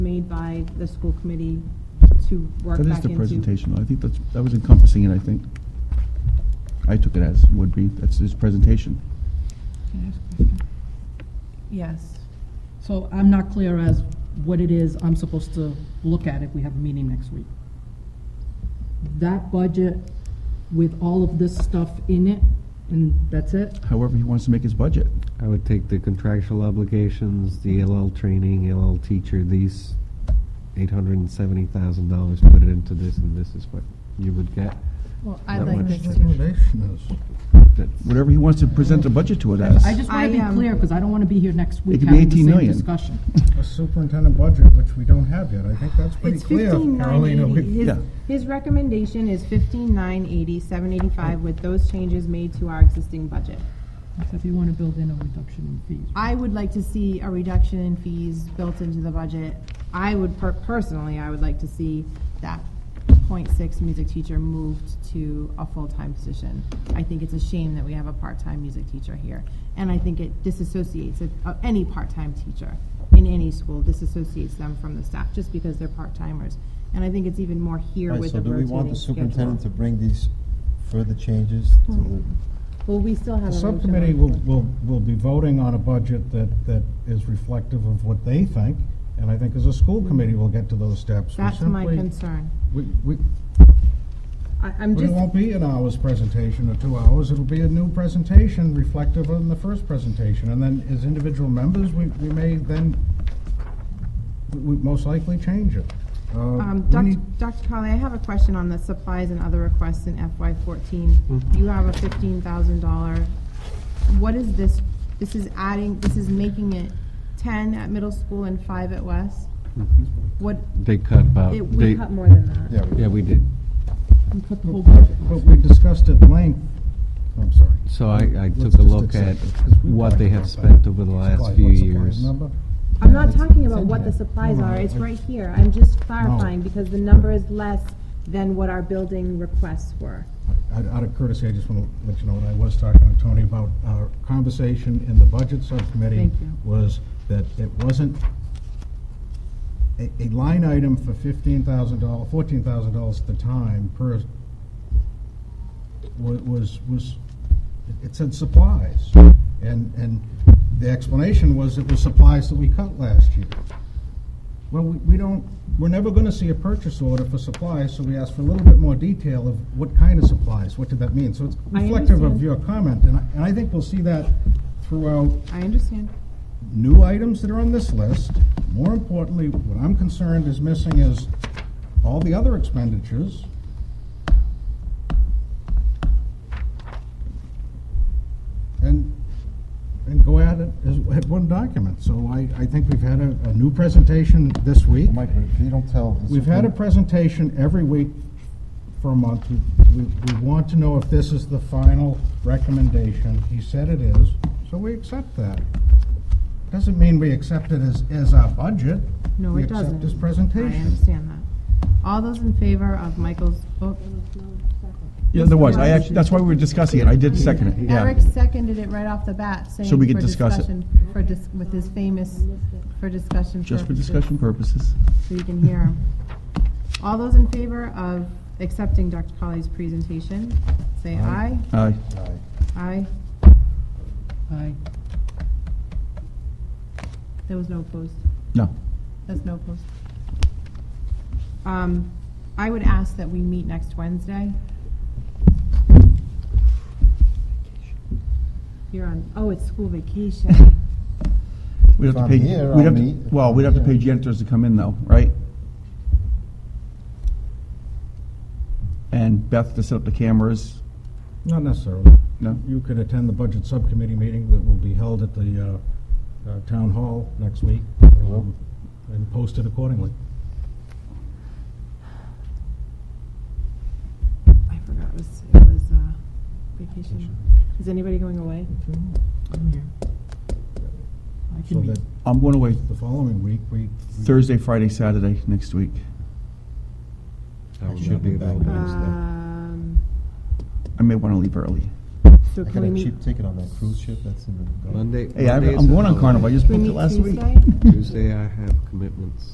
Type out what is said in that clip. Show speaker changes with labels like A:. A: by the school committee to work
B: That is
A: back
B: the
A: into.
B: presentation. I think that's, that was encompassing it, I think. I took it as would be, that's his presentation.
C: Can I ask a question?
D: Yes.
C: So I'm not clear as what it is I'm supposed to look at if we have a meeting next week. That budget with all of this stuff in it, and that's it?
B: However, he wants to make his budget.
E: I would take the contractual obligations, the LL training, LL teacher, these eight hundred and seventy thousand dollars, put it into this, and this is what you would get.
D: Well,
E: That
D: I'd like
E: much
D: this
E: change.
D: to.
F: Recommendation is,
E: That's-
B: Whatever he wants to present the budget to it as.
C: I just want
A: I,
C: to be
A: um,
C: clear, because I don't want to be here next week
B: could be
C: having the
B: 18
C: same
B: million.
C: discussion.
F: a superintendent budget, which we don't have yet. I think that's pretty
A: It's
F: clear,
A: fifteen nine
F: Carolina.
A: eighty.
B: Yeah.
A: His, his recommendation is fifteen nine eighty, seven eighty-five with those changes made to our existing budget.
C: So if you want to build in a reduction in fees.
A: I would like to see a reduction in fees built into the budget. I would, per- personally, I would like to see that .6 music teacher moved to a full-time position. I think it's a shame that we have a part-time music teacher here. And I think it disassociates it- uh, any part-time teacher in any school, disassociates them from the staff, just because they're part-timers. And I think it's even more here
G: Right,
A: with
G: so
A: the
G: do we want
A: rotating
G: the superintendent to
A: schedule.
G: bring these further changes to the,
A: Well, we still have a
F: The
A: motion on
F: subcommittee will, will, will be voting on a budget that, that is reflective of what they think, and I think as a school committee, we'll get to those steps. We
A: That's my
F: simply-
A: concern.
F: We, we,
A: I- I'm
F: but it
A: just,
F: won't be an hour's presentation or two hours, it'll be a new presentation reflective on the first presentation, and then as individual members, we, we may then, we we most likely change it. Uh,
A: Um,
F: we
A: Dr.
F: need-
A: Dr. Colley, I have a question on the supplies and other requests in FY fourteen.
F: Mm-hmm.
A: You have a fifteen thousand dollar, what is this, this is adding, this is making it ten at middle school and five at West?
F: Mm-hmm.
A: What,
E: They cut about,
A: it,
E: Uh, they,
A: we cut more than that.
G: yeah,
E: yeah, we did.
C: We cut the whole budget.
F: But we discussed at length, I'm sorry.
E: So I, I took
F: Let's
E: a
F: just
E: look at
F: accept it, 'cause we've
E: what
F: talked
E: they have
F: about that.
E: spent over the last
F: Supplies,
E: few
F: what supplies,
E: years.
F: remember?
A: I'm not talking about
F: in
A: what the
F: here.
A: supplies
F: No,
A: are,
F: no,
A: it's
F: I-
A: right here, I'm just clarifying, because the number is less than what our building requests were.
F: Out out of courtesy, I just want to let you know, what I was talking to Tony about our conversation in the budget subcommittee.
A: Thank you.
F: Was that it wasn't a, a line item for fifteen thousand dollars, fourteen thousand dollars at the time per, wa- was, was, it- it said supplies. And, and the explanation was it was supplies that we cut last year. Well, we, we don't, we're never gonna see a purchase order for supplies, so we asked for a little bit more detail of what kind of supplies, what did that mean? So it's
A: I
F: reflective
A: understand.
F: of your comment, and I, and I think we'll see that throughout
A: I understand.
F: new items that are on this list. More importantly, what I'm concerned is missing is all the other expenditures. And, and go at it as, at one document. So I, I think we've had a, a new presentation this week.
G: Mike, but if you don't tell. the
F: We've had a
G: superin-
F: presentation every week for a month. We- We, we want to know if this is the final recommendation. He said it is, so we accept that. Doesn't mean we accept it as, as our budget.
A: No, it doesn't.
F: We accept his
A: I
F: presentation.
A: understand that. All those in favor of Michael's book?
B: Yeah, there was. I actually, that's why we were discussing it. I did second it, yeah.
A: Eric seconded it right off the bat, saying
B: So we could
A: for
B: discuss it.
A: discussion, for dis- with his famous for discussion.
B: Just for
A: purposes,
B: discussion purposes.
A: so you can hear him. All those in favor of accepting Dr. Colley's presentation, say aye.
G: Aye.
B: Aye.
G: Aye.
A: Aye.
C: Aye.
A: There was no opposed.
B: No.
A: There's no opposed. Um, I would ask that we meet next Wednesday. You're on. Oh, it's school vacation.
B: We'd have
G: If
B: to
G: I'm
B: pay,
G: here,
B: we'd
G: I'll
B: have to,
G: meet. If
B: well,
G: I'm
B: we'd have to pay
G: here.
B: janitors to come in though, right? And Beth to set up the cameras.
F: Not necessarily.
B: No?
F: You could attend the budget subcommittee meeting that will be held at the, uh, uh, town hall next week.
G: will.
F: um, And post it accordingly.
A: I forgot it was it was uh, vacation. Is anybody going away?
C: I'm here. I
F: So
C: can be,
F: that
B: I'm going away
F: the following week, we. we-
B: Thursday, Friday, Saturday next week.
E: I will
G: Should
E: not
G: be back
E: available.
G: Wednesday.
A: Um,
B: I may want to leave early.
A: so
G: I
A: can
G: got
A: we
G: a
A: meet?
G: cheap ticket on that cruise ship that's in the. Gulf.
E: Monday.
B: Hey, I-
E: Monday is
B: I'm going on
E: available.
B: Carnival. I just
A: Can we
B: booked it
A: meet
B: last week.
A: Tuesday?
E: Tuesday I have commitments.